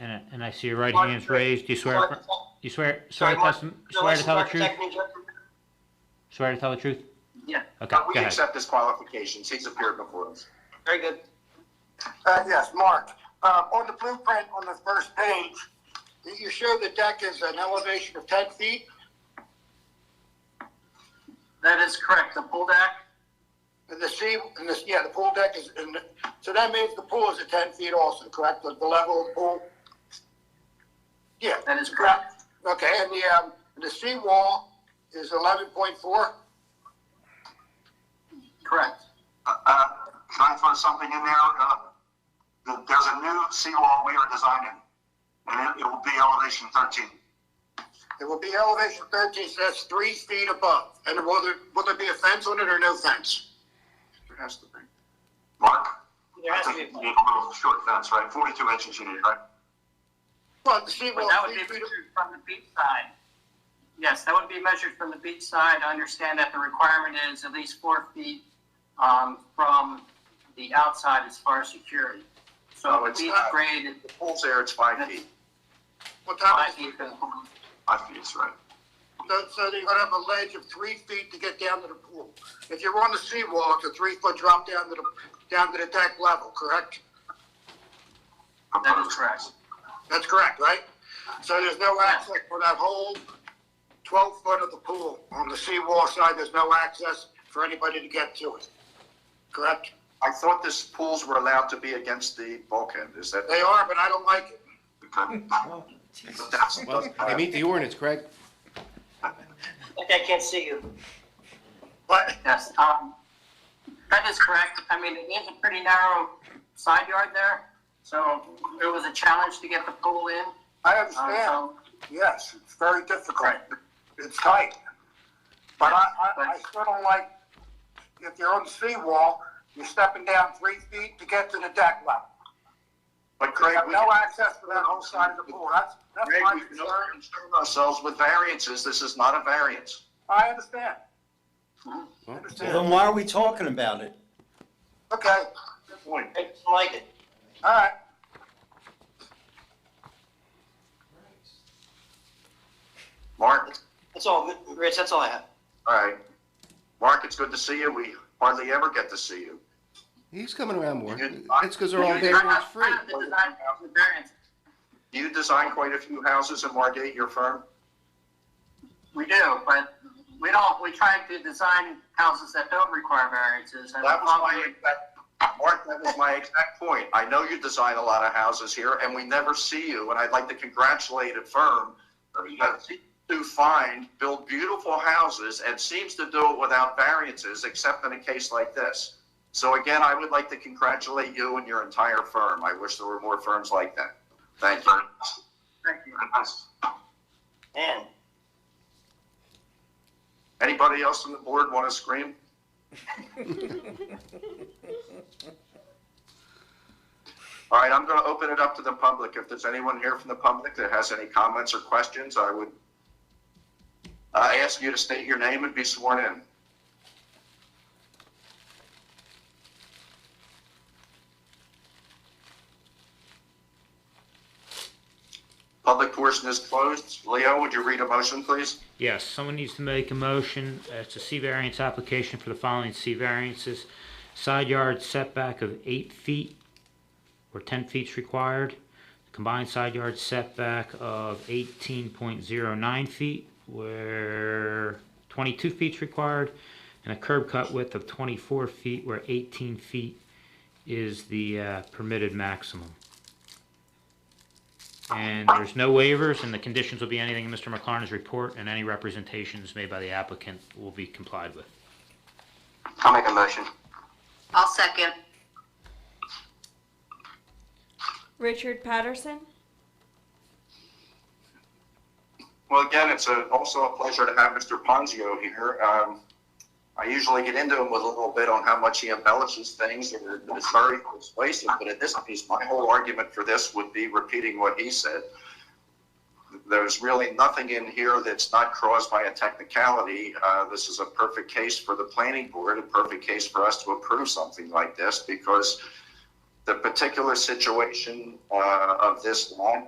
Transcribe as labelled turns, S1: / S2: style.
S1: And, I- and I see your right
S2: Pardon?
S1: hand's raised. Do you swear,
S2: Pardon?
S1: you swear, swear
S2: Sorry,
S1: to
S2: Mark,
S1: tell,
S2: no,
S1: swear to
S2: let's
S1: tell the
S2: not
S1: truth?
S2: protect me just-
S1: Swear to tell the truth?
S2: Yeah.
S1: Okay,
S2: Uh,
S1: go
S2: We
S1: ahead.
S2: accept his qualifications, he's appeared before us. Very good.
S3: Uh, yes, Mark, uh, on the blueprint on the first page, you show the deck is an elevation of ten feet.
S2: That is correct, the pool deck,
S3: And the sea, and the, yeah, the pool deck is, in the- so that means the pool is at ten feet also, correct? The the level of the pool? Yeah.
S2: that is correct.
S3: Okay, and the, um, the seawall is eleven point four?
S2: Correct.
S4: Uh, Can I throw something in there? Uh, th- There's a new seawall we are designing, and it- it will be elevation 13.
S3: It will be elevation thirteen, so that's three feet above. And will there, will there be a fence on it or no fence?
S4: There has to be. Mark?
S2: There has to be.
S4: I think you need a little short fence, right? 42 inches you need, right?
S3: Well, the seawall.
S2: But that would
S3: three feet
S2: be
S3: ab-
S2: measured from the beach side. Yes, that would be measured from the beach side. I understand that the requirement is at least four feet um, from the outside as far as security.
S4: No,
S2: So the
S4: it's
S2: beach
S4: not.
S2: grade is
S4: The pool's there, it's five feet.
S3: What
S2: five
S3: time is
S2: feet
S3: it?
S2: from the pool.
S4: Five feet is right.
S3: So, so you're gonna have a ledge of three feet to get down to the pool. If you're on the seawall, it's a three foot drop down to the, down to the deck level, correct?
S2: That is correct.
S3: That's correct, right? So there's no access for that whole twelve foot of the pool. On the seawall side, there's no access for anybody to get to it. Correct?
S5: I thought this pools were allowed to be against the bulkhead, is that?
S3: They are, but I don't like it.
S4: Okay.
S5: That's-
S6: Well, they meet the ordinance, Craig.
S7: Okay, I can't see you.
S3: But
S2: Yes, um, that is correct. I mean, it is a pretty narrow side yard there. So it was a challenge to get the pool in.
S3: I
S2: Um,
S3: understand,
S2: So
S3: yes, it's very difficult. It's tight. But I, I, I still don't like, if you're on the seawall, you're stepping down three feet to get to the deck level.
S5: But
S3: You
S5: Craig,
S3: have
S5: we
S3: no
S5: can
S3: access to that whole side of the pool, that's, that's
S5: Craig,
S3: my
S5: we can
S3: concern.
S5: only concern ourselves with variances, this is not a variance.
S3: I understand. I
S6: Well,
S3: understand.
S8: why are we talking about it?
S3: Okay,
S5: Good point.
S7: I don't like it.
S3: all right.
S5: Mark,
S7: That's all, Rich, that's all I have.
S5: all right. Mark, it's good to see you, we hardly ever get to see you.
S6: He's coming around more.
S5: You're-
S6: It's because they're all
S2: I
S6: there and it's
S2: have
S6: free.
S2: the design of the variance.
S5: Do you design quite a few houses in Margate, your firm?
S2: We do, but we don't, we try to design houses that don't require variances. and
S5: That was my,
S2: probably-
S5: exact- Mark, that was my exact point. I know you design a lot of houses here, and we never see you, and I'd like to congratulate a firm that seems to find, build beautiful houses, and seems to do it without variances, except in a case like this. So again, I would like to congratulate you and your entire firm. I wish there were more firms like that. Thank you.
S2: Thank you.
S7: Man,
S5: Anybody else on the board want to scream? All right, I'm going to open it up to the public. If there's anyone here from the public that has any comments or questions, I would uh, ask you to state your name and be sworn in. Public portion is closed. Leo, would you read a motion, please?
S1: Yes, someone needs to make a motion. Uh, It's a C variance application for the following C variances. Side yard setback of eight feet or ten feet is required. Combined side yard setback of eighteen point zero nine feet where twenty-two feet is required. And a curb cut width of twenty-four feet where eighteen feet is the uh, permitted maximum. And there's no waivers, and the conditions will be anything in Mr. McLaren's report, and any representations made by the applicant will be complied with.
S4: I'll make a motion.
S9: I'll second.
S10: Richard Patterson.
S5: Well, again, it's a, also a pleasure to have Mr. Ponzio here. Um, I usually get into him with a little bit on how much he embellishes things, or it's very persuasive, but at this piece, my whole argument for this would be repeating what he said. There's really nothing in here that's not caused by a technicality. Uh, this is a perfect case for the planning board, a perfect case for us to approve something like this, because the particular situation, uh, of this lot